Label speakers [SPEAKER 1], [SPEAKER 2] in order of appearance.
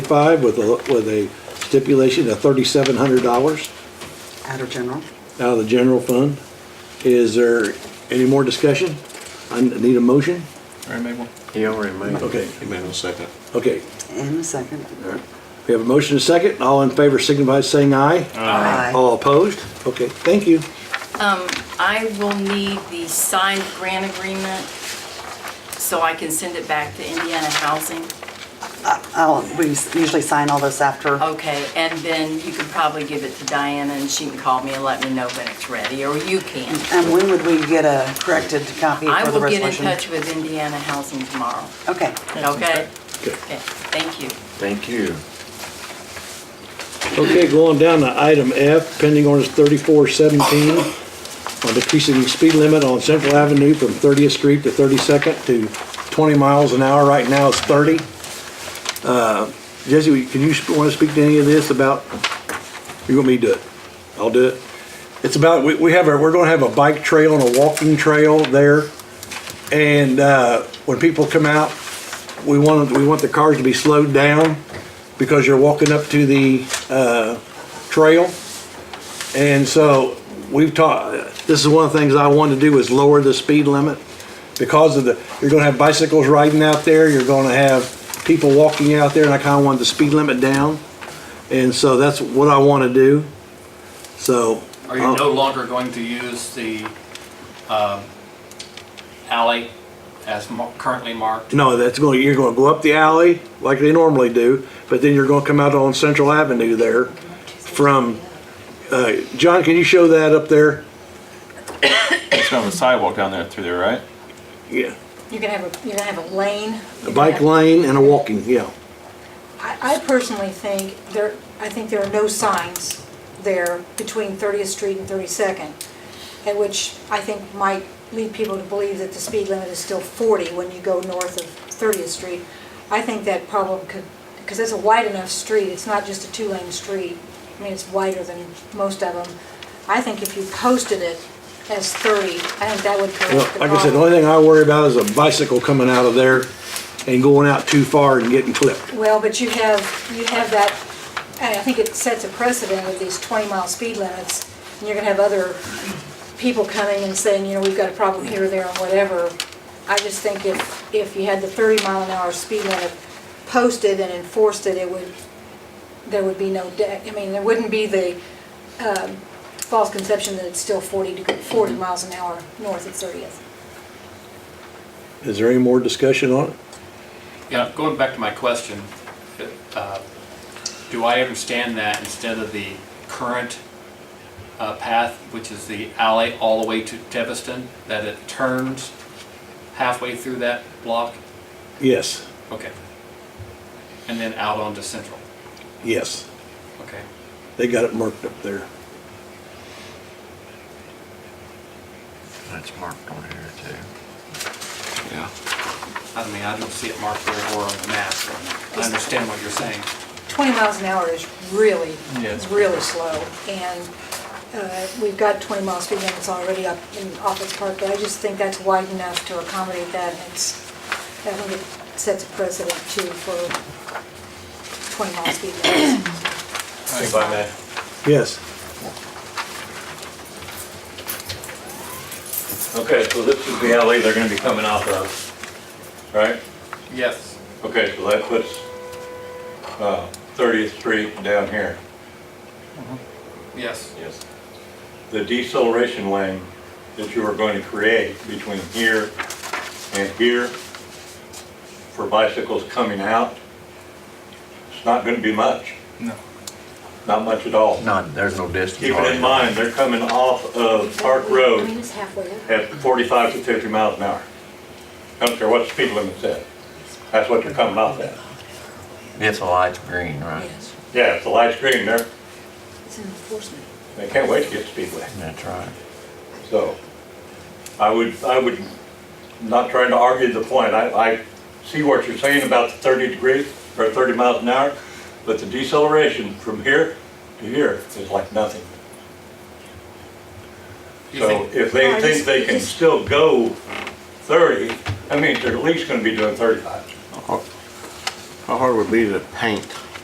[SPEAKER 1] twenty-five with a, with a stipulation of thirty-seven hundred dollars
[SPEAKER 2] Out of general.
[SPEAKER 1] out of the general fund. Is there any more discussion? I need a motion?
[SPEAKER 3] Ray Mabel?
[SPEAKER 4] He already made it.
[SPEAKER 1] Okay.
[SPEAKER 4] He made a second.
[SPEAKER 1] Okay,
[SPEAKER 2] And the second.
[SPEAKER 1] we have a motion and a second. All in favor signify by saying aye.
[SPEAKER 2] Aye.
[SPEAKER 1] All opposed? Okay, thank you.
[SPEAKER 5] I will need the signed grant agreement so I can send it back to Indiana Housing.
[SPEAKER 2] I'll- Oh, We usually sign all this after.
[SPEAKER 5] Okay, and then you can probably give it to Diana and she can call me and let me know when it's ready, or you can.
[SPEAKER 2] And when would we get a corrected copy
[SPEAKER 5] I
[SPEAKER 2] for the
[SPEAKER 5] will get in
[SPEAKER 2] resolution?
[SPEAKER 5] touch with Indiana Housing tomorrow,
[SPEAKER 2] Okay.
[SPEAKER 5] okay?
[SPEAKER 1] Okay.
[SPEAKER 5] Okay, thank you.
[SPEAKER 4] Thank you.
[SPEAKER 1] Okay, going down to item F, pending ordinance thirty-four seventeen on decreasing the speed limit on Central Avenue from Thirtieth Street to Thirty-second to twenty miles an hour. Right now it's thirty. Uh, Jesse, can you, want to speak to any of this about, you want me to do it? I'll do it. It's about, we, we have a, we're gonna have a bike trail and a walking trail there. And, uh, when people come out, we want, we want the cars to be slowed down because you're walking up to the, uh, trail. And so we've taught, this is one of the things I wanted to do is lower the speed limit. Because of the, you're gonna have bicycles riding out there, you're gonna have people walking out there, and I kinda wanted the speed limit down. And so that's what I wanna do. So. uh,
[SPEAKER 3] Are you
[SPEAKER 1] I'll-
[SPEAKER 3] no longer going to use the um, alley as mar- currently marked?
[SPEAKER 1] No, that's going, to you're going to go up the alley like they normally do, but then you're going to come out on Central Avenue there from, uh, John, can you show that up there?
[SPEAKER 6] It's gonna have a sidewalk down there through there, right?
[SPEAKER 1] Yeah,
[SPEAKER 7] You're gonna have, a you're gonna have a lane.
[SPEAKER 1] a bike lane and a walking, yeah.
[SPEAKER 7] I, I personally think there, I think there are no signs there between 30th Street and 32nd, at which I think might lead people to believe that the speed limit is still 40 when you go north of 30th Street. I think that problem could, because it's a wide enough street, it's not just a two-lane street. I mean, it's wider than most of them. I think if you posted it as 30, I think that
[SPEAKER 1] Well,
[SPEAKER 7] would correct the problem.
[SPEAKER 1] like I said, the only thing I worry about is a bicycle coming out of there and going out too far and getting clipped.
[SPEAKER 7] Well, but you have, you have that, and I think it sets a precedent with these 20-mile speed limits, and you're going to have other people coming and saying, you know, we've got a problem here, there, and whatever. I just think if, if you had the 30-mile-an-hour speed limit posted and enforced it, it would, there would be no, de- I mean, there wouldn't be the um, false conception that it's still 40, deg- 40 miles an hour north of 30th.
[SPEAKER 1] Is there any more discussion on it?
[SPEAKER 3] Yeah, going back to my question, uh, do I understand that instead of the current uh, path, which is the alley all the way to Deviston, that it turns halfway through that block?
[SPEAKER 1] Yes,
[SPEAKER 3] Okay. And then out onto Central?
[SPEAKER 1] yes.
[SPEAKER 3] Okay.
[SPEAKER 1] They got it marked up there.
[SPEAKER 4] That's marked on here too.
[SPEAKER 3] Yeah. I mean, I don't see it marked there or on the map. I understand what you're saying.
[SPEAKER 7] 20 miles an hour is really,
[SPEAKER 6] Yeah, it's pretty
[SPEAKER 7] really slow. And uh, we've got 20 mile speed limits already up in Office Park, but I just think that's wide enough to accommodate that. and It's, I think it sets a precedent too for 20 mile speed limits.
[SPEAKER 3] If I may.
[SPEAKER 1] Yes.
[SPEAKER 8] Okay, so this is the alley they're gonna be coming off of, right?
[SPEAKER 3] Yes.
[SPEAKER 8] Okay, so that puts, uh, 30th Street down here.
[SPEAKER 3] Yes.
[SPEAKER 8] Yes. The deceleration lane that you are going to create between here and here for bicycles coming out, it's not gonna be much.
[SPEAKER 6] No.
[SPEAKER 8] Not much at all.
[SPEAKER 4] Not, there's no distance.
[SPEAKER 8] Keep it in mind, they're coming off of Park
[SPEAKER 7] I mean,
[SPEAKER 8] Road
[SPEAKER 7] it's halfway up.
[SPEAKER 8] at 45 to 50 miles an hour. I don't care what the speed limit's at. That's what they're coming off at.
[SPEAKER 4] It's a light green, right?
[SPEAKER 7] Yes,
[SPEAKER 8] Yeah, it's a light green there.
[SPEAKER 7] it's an enforcement.
[SPEAKER 8] They can't wait to get to Speedway.
[SPEAKER 4] That's right.
[SPEAKER 8] So I would, I would, not trying to argue the point. I, I see what you're saying about the 30 degrees or 30 miles an hour, but the deceleration from here to here is like nothing.
[SPEAKER 3] You
[SPEAKER 8] So
[SPEAKER 3] think-
[SPEAKER 8] if they think they can still go 30, that means they're at least going to be doing 35.
[SPEAKER 4] How hard would it be to paint